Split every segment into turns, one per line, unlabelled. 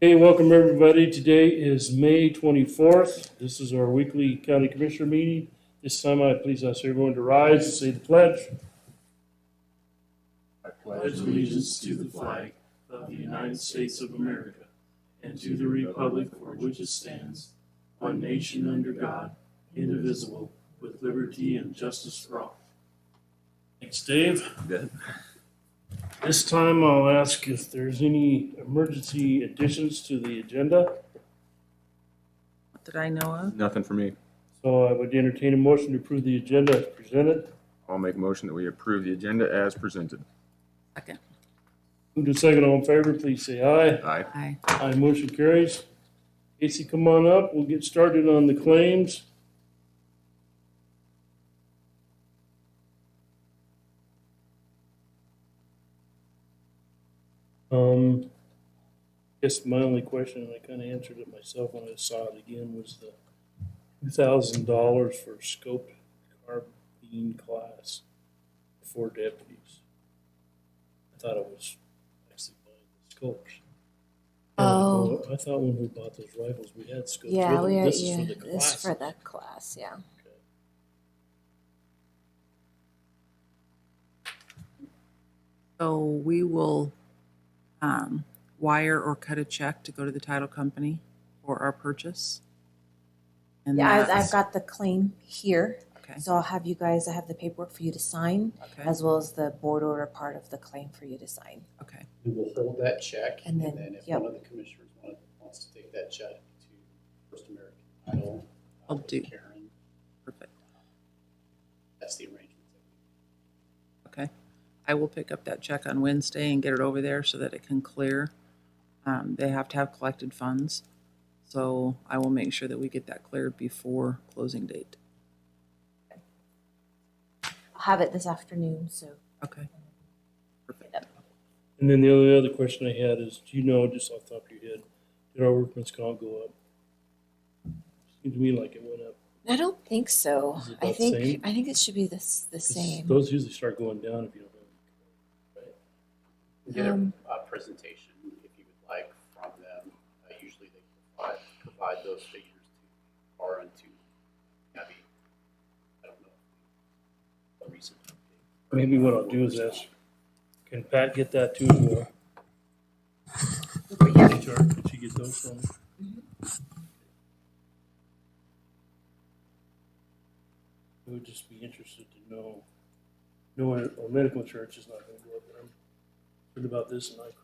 Hey, welcome everybody. Today is May 24th. This is our weekly county commissioner meeting. This time I please ask everyone to rise and say the pledge.
I pledge allegiance to the flag of the United States of America and to the republic for which it stands, one nation under God, indivisible, with liberty and justice for all.
Thanks, Dave. This time I'll ask if there's any emergency additions to the agenda.
that I know of.
Nothing for me.
So I would entertain a motion to approve the agenda as presented.
I'll make a motion that we approve the agenda as presented.
Second.
Move to second, all in favor, please say aye.
Aye.
Aye.
Aye, motion carries. Casey, come on up. We'll get started on the claims. Um, guess my only question, and I kind of answered it myself when I saw it again, was the two thousand dollars for scope carbine class for deputies. I thought it was actually buying the scopes.
Oh.
I thought when we bought those rifles, we had scopes.
Yeah,
with them.
we are.
This is
yeah,
for the
this is
class.
for the class. Yeah.
So we will um, wire or cut a check to go to the title company for our purchase. And
Yeah, I've, I've
that's-
got the claim here,
Okay,
so I'll have you guys. I have the paperwork for you to sign,
okay,
as well as the board order part of the claim for you to sign.
okay.
We will hold that check,
And then-
and then if
yep.
one of the commissioners want- wants to take that check to First American Idol. uh,
I'll
with
do.
Karen,
Perfect.
that's the arrangement. that we
Okay. I will pick up that check on Wednesday and get it over there so that it can clear. Um, They have to have collected funds. So I will make sure that we get that cleared before closing date.
I'll have it this afternoon. So
Okay. Perfect.
And then the only other question I had is, do you know, just off the top of your head, did our workman's comp go up? Seems to me like it went up.
I don't think so.
Is it
I
about
think
same?
I think it should be this the
'Cause
same.
Those usually start going down if you don't.
We get a
Um,
uh, presentation, if you would like, from them. Uh, Usually they provide, provide those figures to bar and to Abby. I don't know. A recent. update.
Maybe what I'll do is ask, can Pat get that too? or- HR, Can she get those from? I would just be interested to know, knowing our medical insurance is not gonna go up, but I'm concerned about this and I crap.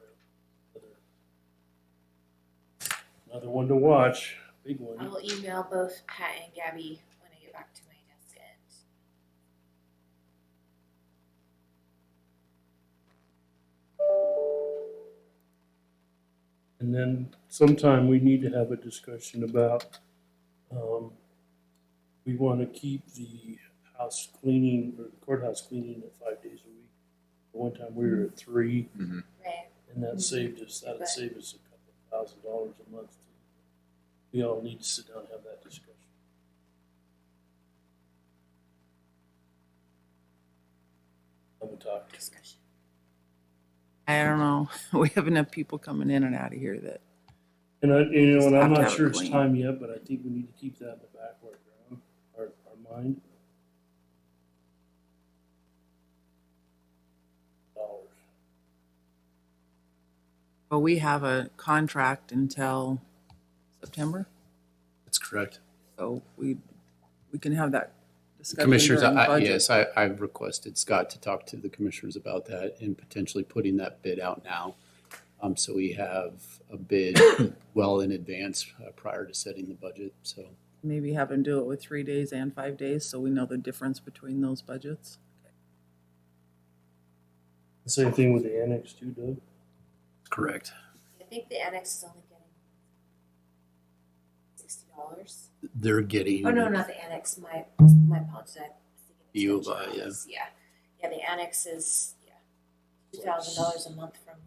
Another one to watch, big
I
one.
will email both Pat and Gabby when I get back to my desk and
And then sometime we need to have a discussion about, um, we want to keep the house cleaning, or courthouse cleaning at five days a week. One time we were at three,
Ray.
and that saved us, that'd
Right.
save us a couple thousand dollars a month. We all need to sit down and have that discussion. I'm gonna talk to
discussion.
I don't know. We have enough people coming in and out of here that
And I, you know, and I'm
Have
not
to have it
sure it's
clean.
time yet, but I think we need to keep that in the back of our ground, our, our mind. Dollars.
Well, we have a contract until September,
That's correct.
so we, we can have that discussion
Commissioners,
during
I- I-
budget.
yes, I, I've requested Scott to talk to the commissioners about that and potentially putting that bid out now. Um, so we have a bid well in advance uh, prior to setting the budget, so.
Maybe have them do it with three days and five days, so we know the difference between those budgets.
The Same thing with the annex too, Doug.
Correct.
I think the annex is only getting sixty dollars.
They're getting.
Oh no, not the annex. My my apologies. I was thinking
You,
extension
uh, yeah.
office. Yeah, yeah. The annex is yeah two thousand dollars a month from